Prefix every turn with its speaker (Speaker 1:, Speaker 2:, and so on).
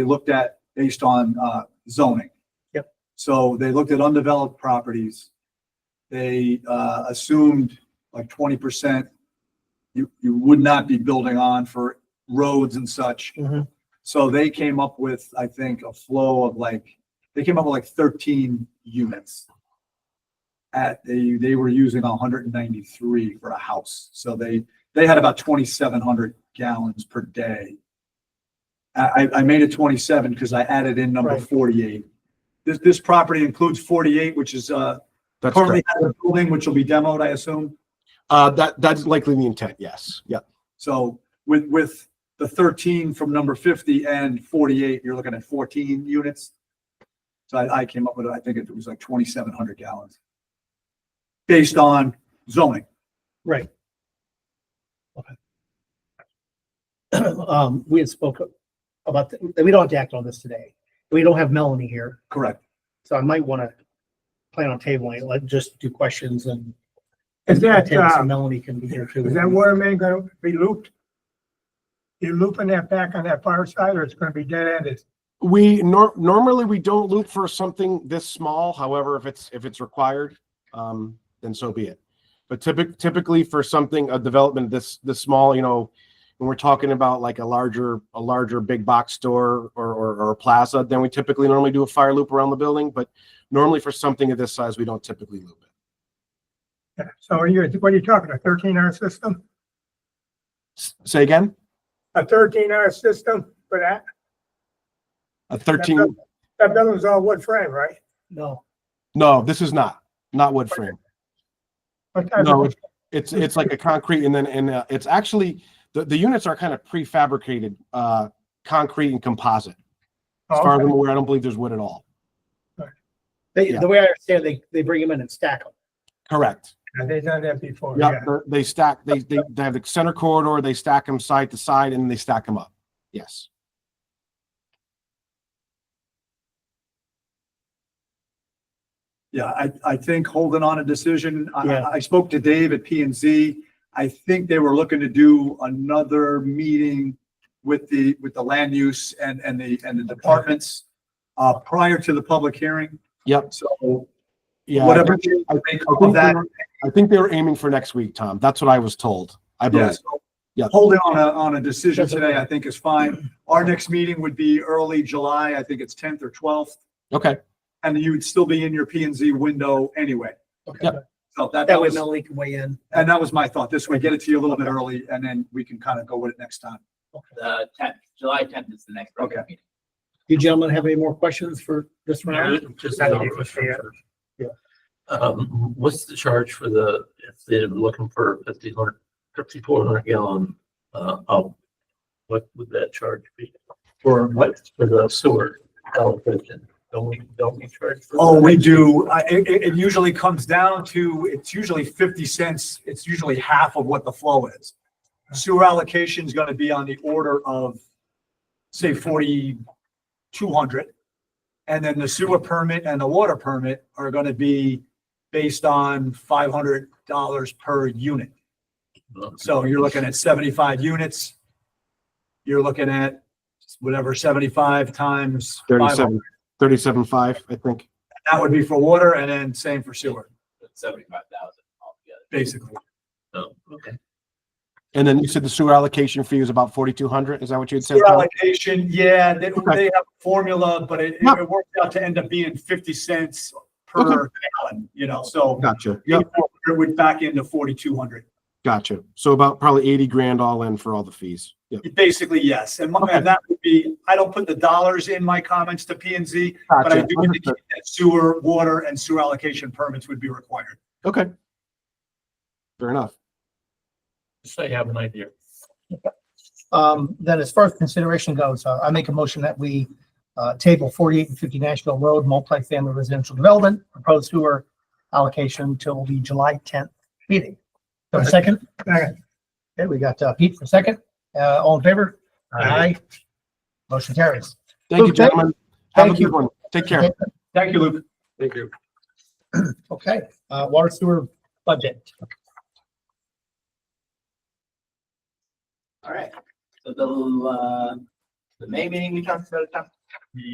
Speaker 1: they looked at based on uh, zoning.
Speaker 2: Yep.
Speaker 1: So they looked at undeveloped properties. They uh, assumed like twenty percent you, you would not be building on for roads and such.
Speaker 2: Mhm.
Speaker 1: So they came up with, I think, a flow of like, they came up with like thirteen units. At, they, they were using hundred and ninety-three for a house. So they, they had about twenty-seven hundred gallons per day. I, I, I made it twenty-seven because I added in number
Speaker 2: Right.
Speaker 1: forty-eight. This, this property includes forty-eight, which is, uh,
Speaker 3: That's
Speaker 1: currently
Speaker 3: correct.
Speaker 1: has a building, which will be demoed, I assume.
Speaker 3: Uh, that, that's likely the intent, yes. Yep.
Speaker 1: So with, with the thirteen from number fifty and forty-eight, you're looking at fourteen units. So I, I came up with, I think it was like twenty-seven hundred gallons. Based on zoning.
Speaker 2: Right. Okay. Um, we had spoke about, th- we don't have to act on this today. We don't have Melanie here,
Speaker 1: Correct.
Speaker 2: so I might want to plan on tabling it, let, just do questions and.
Speaker 4: Is that,
Speaker 2: and
Speaker 4: uh,
Speaker 2: Melanie can be here too.
Speaker 4: is that water main gonna be looped? You looping that back on that far side or it's gonna be dead ended?
Speaker 3: We nor- normally we don't loop for something this small. However, if it's if it's required, um, then so be it. But typically, typically for something a development this this small, you know, when we're talking about like a larger a larger big box store or or, or a plaza, then we typically normally do a fire loop around the building. But normally for something of this size, we don't typically loop it.
Speaker 4: So are you, what are you talking, a thirteen hour system?
Speaker 3: S- Say again,
Speaker 4: A thirteen hour system for that?
Speaker 3: a thirteen?
Speaker 4: That building's all wood frame, right?
Speaker 2: No,
Speaker 3: No, this is not not wood frame.
Speaker 4: What type
Speaker 3: No,
Speaker 4: of,
Speaker 3: It's, it's like a concrete and then, and uh, it's actually, the, the units are kind of prefabricated, uh, concrete and composite. As
Speaker 4: Oh,
Speaker 3: far as
Speaker 4: okay.
Speaker 3: I'm aware, I don't believe there's wood at all.
Speaker 2: they,
Speaker 3: Yeah.
Speaker 2: the way I understand, they, they bring them in and stack them.
Speaker 3: Correct.
Speaker 4: Yeah, they done that before, Oh, yeah.
Speaker 3: Yep, they're- they stack, they, they, they have the center corridor, they stack them side to side and they stack them up. Yes.
Speaker 1: Yeah, I, I think holding on a decision. I-
Speaker 2: Yeah.
Speaker 1: I, I spoke to Dave at P and Z. I think they were looking to do another meeting with the, with the land use and, and the, and the departments uh, prior to the public hearing.
Speaker 3: Yep.
Speaker 1: So
Speaker 3: Yeah. I
Speaker 1: whatever
Speaker 3: think-
Speaker 1: they
Speaker 3: I
Speaker 1: make
Speaker 3: I
Speaker 1: of
Speaker 3: think
Speaker 1: that,
Speaker 3: they were- I think they were aiming for next week, Tom. That's what I was told. I
Speaker 1: Yeah,
Speaker 3: believe.
Speaker 1: so
Speaker 3: Yeah.
Speaker 1: holding on a, on a decision
Speaker 2: That's
Speaker 1: today,
Speaker 2: okay.
Speaker 1: I think is fine. Our next meeting would be early July, I think it's tenth or twelfth,
Speaker 3: Okay.
Speaker 1: and you would still be in your P and Z window anyway.
Speaker 2: Okay.
Speaker 3: Yep.
Speaker 1: So that,
Speaker 2: That
Speaker 1: that
Speaker 2: way
Speaker 1: was,
Speaker 2: Melanie can weigh in.
Speaker 1: and that was my thought. This way, get it to you a little bit early, and then we can kind of go with it next time.
Speaker 5: the tenth, July tenth is the next regular meeting.
Speaker 2: Do you gentlemen have any more questions for this round?
Speaker 6: Just
Speaker 2: That'd
Speaker 6: another
Speaker 2: be
Speaker 6: question
Speaker 2: fair.
Speaker 6: first.
Speaker 2: Yeah.
Speaker 6: Um, what's the charge for the, if they're looking for fifty hundred, fifty-four hundred gallon, uh, oh, what would that charge be? For what, for the sewer allocation? Don't we, don't we charge? for
Speaker 1: Oh,
Speaker 6: that?
Speaker 1: we do. I- It, it it usually comes down to, it's usually 50 cents. It's usually half of what the flow is. Sewer allocation is going to be on the order of, say, 4,200. And then the sewer permit and the water permit are going to be based on $500 per unit. So you're looking at 75 units. You're looking at whatever, 75 times 500.
Speaker 3: Thirty-seven, thirty-seven five, I think.
Speaker 1: That would be for water and then same for sewer,
Speaker 5: Seventy-five thousand altogether.
Speaker 1: basically.
Speaker 6: Oh, okay.
Speaker 3: And then you said the sewer allocation fee is about forty-two hundred. Is that what you had said?
Speaker 1: Sewer
Speaker 3: Tom?
Speaker 1: allocation, yeah, they,
Speaker 3: Okay.
Speaker 1: they have a formula, but it,
Speaker 3: No.
Speaker 1: it worked out to end up being fifty cents per
Speaker 3: Okay.
Speaker 1: gallon, you know, so
Speaker 3: Gotcha. Yep.
Speaker 1: it would back into forty-two hundred.
Speaker 3: Gotcha. So about probably eighty grand all in for all the fees. Yep.
Speaker 1: Basically, yes, and my-
Speaker 3: Okay.
Speaker 1: and that would be, I don't put the dollars in my comments to P and Z, but I
Speaker 3: Gotcha.
Speaker 1: do indicate
Speaker 3: Understood.
Speaker 1: that sewer, water and sewer allocation permits would be required.
Speaker 3: Okay. Fair enough.
Speaker 6: Just so you have an idea.
Speaker 2: Um, then as far as consideration goes, uh, I make a motion that we, uh, table forty-eight and fifty Nashville Road, multifamily residential development, proposed sewer allocation till the July tenth meeting. Do I have a second?
Speaker 4: Second.
Speaker 2: Okay, we got, uh, Pete for second. Uh, all in favor?
Speaker 6: Aye.
Speaker 2: Motion carries.
Speaker 3: Thank you,
Speaker 2: Okay.
Speaker 3: gentlemen. Have a
Speaker 2: Thank you.
Speaker 3: good one. Take care.
Speaker 1: Thank you, Luke.
Speaker 6: Thank you.
Speaker 2: Okay, uh, water sewer budget.
Speaker 5: All right. So the, uh,
Speaker 6: the May meeting we talked about it, Tom?